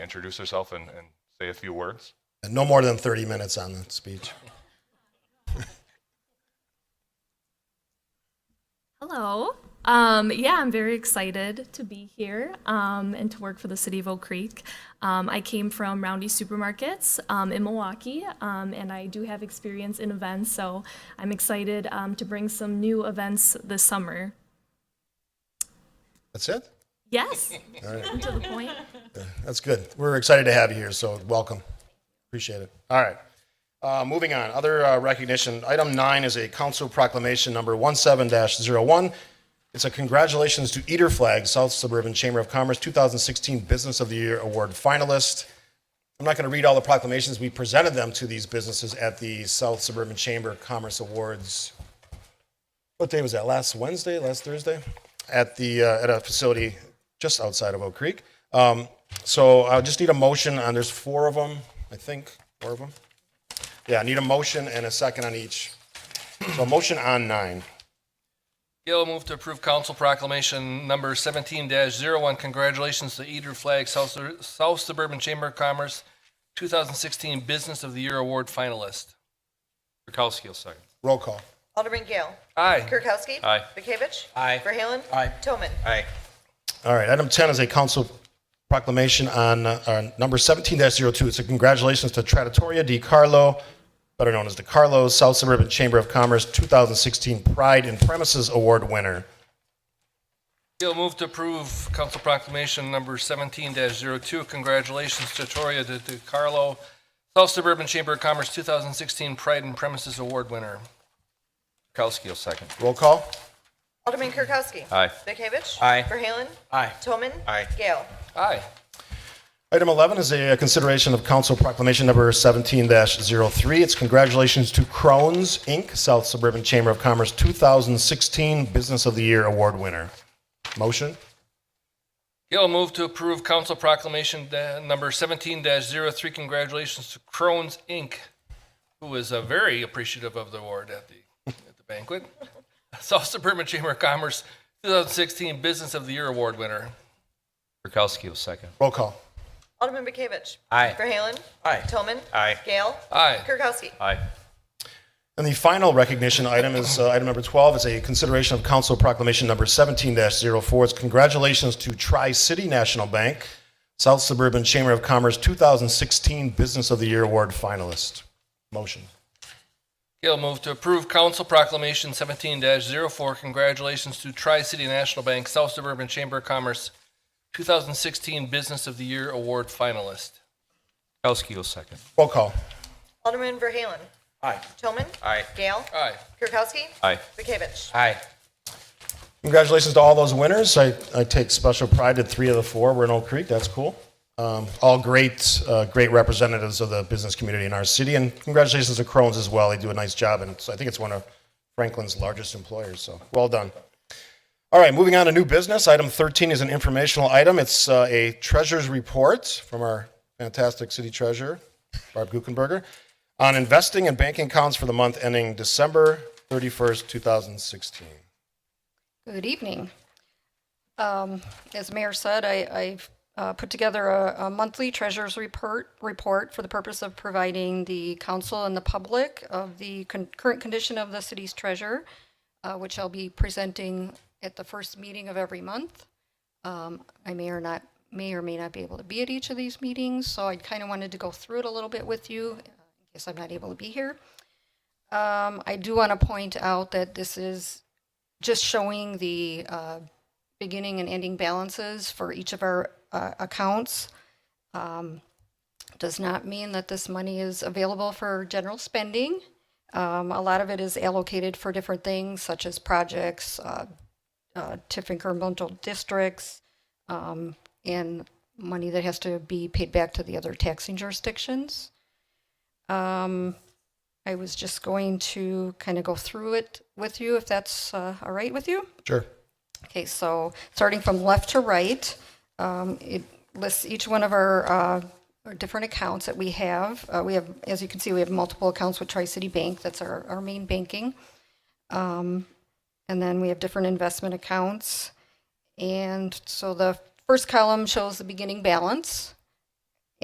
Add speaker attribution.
Speaker 1: introduce herself and, and say a few words?
Speaker 2: No more than 30 minutes on the speech.
Speaker 3: Hello. Um, yeah, I'm very excited to be here um, and to work for the city of Oak Creek. Um, I came from Roundy Supermarkets um, in Milwaukee, um, and I do have experience in events, so I'm excited um, to bring some new events this summer.
Speaker 2: That's it?
Speaker 3: Yes, to the point.
Speaker 2: That's good. We're excited to have you here, so welcome. Appreciate it. All right. Uh, moving on, other uh, recognition. Item nine is a council proclamation number 17-01. It's a congratulations to Eater Flag, South Suburban Chamber of Commerce 2016 Business of the Year Award finalist. I'm not going to read all the proclamations. We presented them to these businesses at the South Suburban Chamber Commerce Awards what day was that? Last Wednesday, last Thursday, at the uh, at a facility just outside of Oak Creek. Um, so I just need a motion on. There's four of them, I think, four of them. Yeah, I need a motion and a second on each. So a motion on nine.
Speaker 4: Gail, move to approve council proclamation number seventeen one Congratulations to Eater Flag South Sur- South Suburban Chamber of Commerce, two thousand sixteen Business of the Year Award finalist.
Speaker 5: Kirkowski will second.
Speaker 2: Roll call.
Speaker 6: Alderman Gale.
Speaker 4: Aye.
Speaker 6: Kirkowski.
Speaker 5: Aye.
Speaker 6: Bekavich.
Speaker 5: Aye.
Speaker 6: Verhaelen.
Speaker 5: Aye.
Speaker 6: Toman.
Speaker 5: Aye.
Speaker 2: All right, item 10 is a council proclamation on uh, on number 17-02. It's a congratulations to Trattoria di Carlo, better known as the Carlos South Suburban Chamber of Commerce 2016 Pride in Premises Award winner.
Speaker 4: Gail, move to approve council proclamation number seventeen 2 Congratulations to Toria De De Carlo, South Suburban Chamber of Commerce, two thousand sixteen Pride and Premises Award winner.
Speaker 5: Kirkowski will second.
Speaker 2: Roll call.
Speaker 6: Alderman Kirkowski.
Speaker 5: Aye.
Speaker 6: Bekavich.
Speaker 5: Aye.
Speaker 6: Verhaelen.
Speaker 5: Aye.
Speaker 6: Toman.
Speaker 5: Aye.
Speaker 6: Gale.
Speaker 4: Aye.
Speaker 2: Item 11 is a consideration of council proclamation number 17-03. It's congratulations to Crohn's, Inc., South Suburban Chamber of Commerce 2016 Business of the Year Award winner. Motion?
Speaker 4: Gail, move to approve council proclamation da- number seventeen 3 Congratulations to Crohn's Inc., who is uh, very appreciative of the award at the, at the banquet. South Suburban Chamber of Commerce, two thousand sixteen Business of the Year Award winner.
Speaker 5: Kirkowski will second.
Speaker 2: Roll call.
Speaker 6: Alderman Bekavich.
Speaker 5: Aye.
Speaker 6: Verhaelen.
Speaker 5: Aye.
Speaker 6: Toman.
Speaker 5: Aye.
Speaker 6: Gale.
Speaker 4: Aye.
Speaker 6: Kirkowski.
Speaker 5: Aye.
Speaker 2: And the final recognition item is uh, item number 12 is a consideration of council proclamation number 17-04. It's congratulations to Tri-City National Bank, South Suburban Chamber of Commerce 2016 Business of the Year Award finalist. Motion?
Speaker 4: Gail, move to approve council proclamation seventeen 4 Congratulations to Tri-City National Bank South Suburban Chamber of Commerce, two thousand sixteen Business of the Year Award finalist.
Speaker 5: Kirkowski will second.
Speaker 2: Roll call.
Speaker 6: Alderman Verhaelen.
Speaker 5: Aye.
Speaker 6: Toman.
Speaker 5: Aye.
Speaker 6: Gale.
Speaker 4: Aye.
Speaker 6: Kirkowski.
Speaker 5: Aye.
Speaker 6: Bekavich.
Speaker 5: Aye.
Speaker 2: Congratulations to all those winners. I, I take special pride that three of the four were in Oak Creek. That's cool. Um, all great, uh, great representatives of the business community in our city. And congratulations to Crohn's as well. They do a nice job. And it's, I think it's one of Franklin's largest employers. So well done. All right, moving on to new business. Item 13 is an informational item. It's uh, a treasurer's report from our fantastic city treasurer, Barb Guckenberger, on investing and banking accounts for the month ending December 31st, 2016.
Speaker 7: Good evening. Um, As the Mayor said, I- I've uh, put together a a monthly treasurer's report, report for the purpose of providing the council and the public of the con- current condition of the city's treasurer, uh, which I'll be presenting at the first meeting of every month. Um, I may or not, may or may not be able to be at each of these meetings, so I kind of wanted to go through it a little bit with you, uh, in case I'm not able to be here. Um, I do want to point out that this is just showing the uh, beginning and ending balances for each of our uh, accounts um, does not mean that this money is available for general spending. Um, A lot of it is allocated for different things such as projects, uh, uh, TIF incremental districts, um, and money that has to be paid back to the other taxing jurisdictions. Um, I was just going to kind of go through it with you, if that's uh, all right with you.
Speaker 2: Sure.
Speaker 7: Okay, so starting from left to right, um, it lists each one of our, uh, our different accounts that we have. Uh, we have, as you can see, we have multiple accounts with Tri City Bank. That's our, our main banking. Um, and then we have different investment accounts. And so the first column shows the beginning balance.